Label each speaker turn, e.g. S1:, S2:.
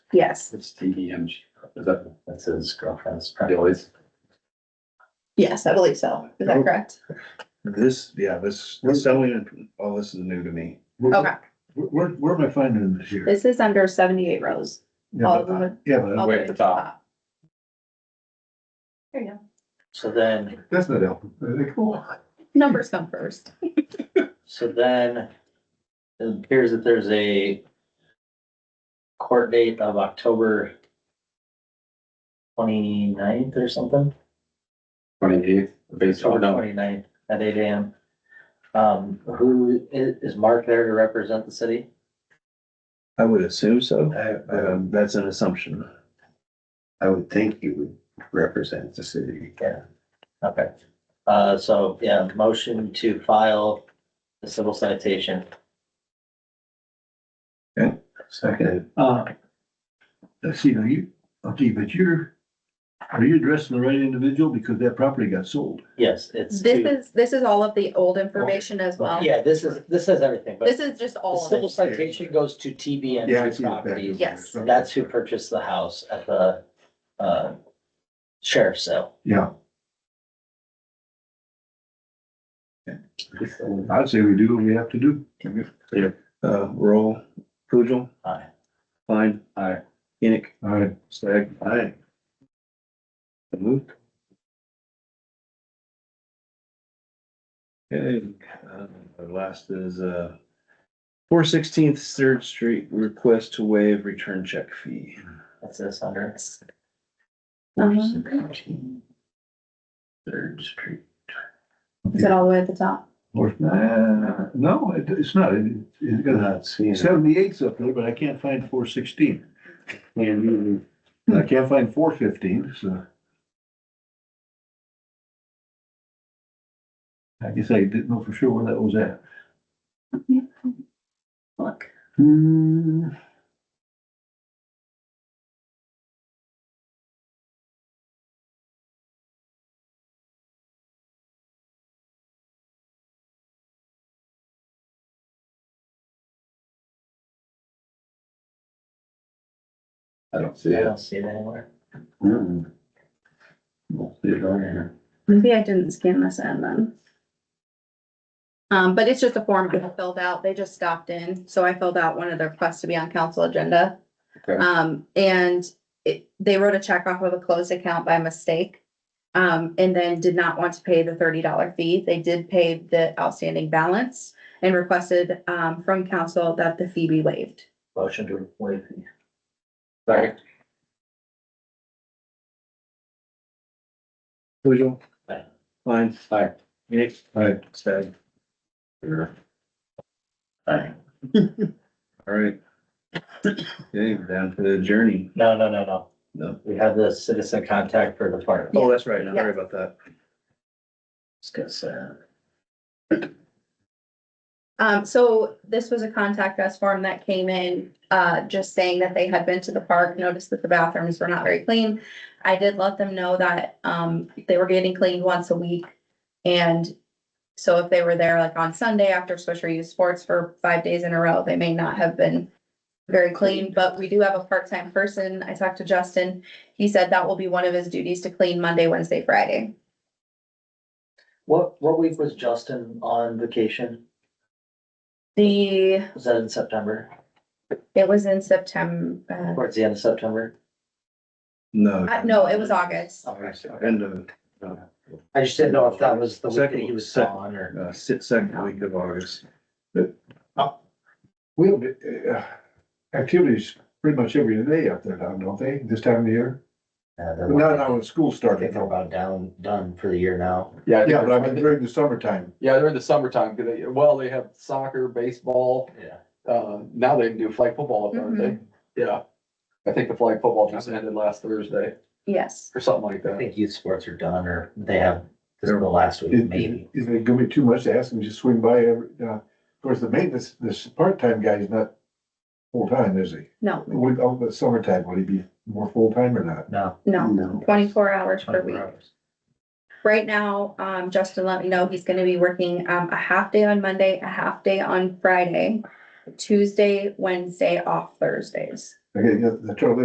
S1: Yes,
S2: It's T E M G, is that, that's his girlfriend's, probably always.
S1: yes, I believe so. Is that
S3: Nope.
S1: correct?
S3: This, yeah, this, this selling, and all this is new to me.
S1: Okay,
S3: Where, where, where am I finding this here?
S1: this is under seventy-eight rows.
S3: Yeah,
S1: all of
S3: but-
S1: them.
S3: Yeah, but
S1: all the
S2: Way
S1: way
S2: at the top.
S1: There you go.
S4: So then,
S3: that's not alphabetical.
S1: Numbers come first.
S4: so then it appears that there's a court date of October 29th or something,
S2: Twenty-eighth, based
S4: October
S2: on, no,
S4: 29th at eight AM. Um, who is, is Mark there to represent the city?
S3: I would assume so.
S5: I, I,
S3: Um, that's an assumption.
S5: I would think you would represent the city.
S4: Okay, uh, so, yeah, motion to file the civil citation.
S3: Second,
S6: Uh,
S3: let's see, are you, okay, but you're, are you addressing the right individual because that property got sold?
S4: Yes, it's.
S1: This
S4: to-
S1: is, this is all of the old information as well.
S4: Yeah, this is, this is everything, but
S1: This is just
S4: the
S1: all of
S4: civil
S1: it.
S4: citation goes to
S3: Yeah, I
S4: TBNG
S3: see it back over there.
S4: properties.
S1: Yes.
S4: That's who purchased the house at the, uh, sheriff's sale.
S3: Yeah. I'd say we do what we have to do.
S2: Yeah.
S3: Uh, roll, Poojil,
S4: Aye.
S3: Klein.
S2: Aye.
S3: Enoch. Aye. Stag. Aye. Moved. Okay, uh, the last is, uh, four sixteenth Third Street, request to waive return check fee.
S4: That's this under.
S1: Uh-huh.
S3: Third Street.
S1: Is it all the way at the top?
S3: Uh, no, it, it's not, it, it's
S5: I'm
S3: got
S5: not seeing it.
S3: seventy-eight's up there, but I can't find four sixteen.
S5: And
S3: And I can't find four fifteen, so. I guess I didn't know for sure where that was at.
S1: Look.
S3: Hmm.
S2: I don't
S4: I
S2: see it.
S4: don't see it anywhere.
S3: Mm.
S2: Don't see it on here.
S1: Maybe I didn't scan this in then. Um, but it's just a form I filled out. They just stopped in, so I filled out one of the requests to be on council agenda.
S2: Okay.
S1: Um, and it, they wrote a check off of a closed account by mistake. Um, and then did not want to pay the thirty dollar fee. They did pay the outstanding balance and requested, um, from council that the fee be waived.
S4: Motion to waive. the-
S2: Sorry.
S3: Pujol.
S4: Aye.
S3: Klein.
S2: Aye.
S3: Nick. Aye. Stag.
S2: Sure.
S4: Aye.
S3: All right. Okay, we're down to the journey.
S4: No, no, no, no.
S3: No.
S4: We have the citizen contact for the park.
S3: Oh, that's right.
S1: Yeah.
S3: Sorry about that.
S4: Discuss, uh,
S1: Um, so this was a contact us form that came in, uh, just saying that they had been to the park, noticed that the bathrooms were not very clean. I did let them know that, um, they were getting cleaned once a week. And so if they were there like on Sunday after Swisher Youth Sports for five days in a row, they may not have been very clean, but we do have a part-time person. I talked to Justin. He said that will be one of his duties to clean Monday, Wednesday, Friday.
S4: What, what week was Justin on vacation?
S1: The,
S4: Was that in September?
S1: it was in September,
S4: Towards the end of September?
S3: No.
S1: uh, no, it was August.
S4: Okay.
S3: End of,
S4: I just didn't know if that was the week that
S3: Second-
S4: he was
S3: second-
S4: on or.
S3: uh, si- second week of August. uh,
S7: We have, uh, activities pretty much every day up there now, don't they, this time of the year?
S4: Uh, they're-
S7: Not now when school
S4: I think
S7: started,
S4: they're
S7: no.
S4: about down, done for the year now.
S2: Yeah,
S7: yeah, but I
S2: they're-
S7: mean during the summertime,
S2: yeah, they're in the summertime, 'cause they, well, they have soccer, baseball,
S4: Yeah.
S2: uh, now they can do flag football, up there, aren't they? Yeah. I think the flag football just ended last Thursday
S1: Yes.
S2: or something like
S4: I
S2: that.
S4: think youth sports are done or they have, this is the last week,
S7: Is-
S4: maybe.
S7: is it gonna be too much to ask them to just swing by every, uh, of course, the maintenance, this part-time guy is not full-time, is he?
S1: No,
S7: With, all the summertime, would he be more full-time or not?
S4: No.
S1: no,
S5: No.
S1: twenty-four hours per
S4: 24
S1: week.
S4: hours.
S1: Right now, um, Justin let me know he's gonna be working, um, a half day on Monday, a half day on Friday, Tuesday, Wednesday, off Thursdays.
S7: Okay, the the trouble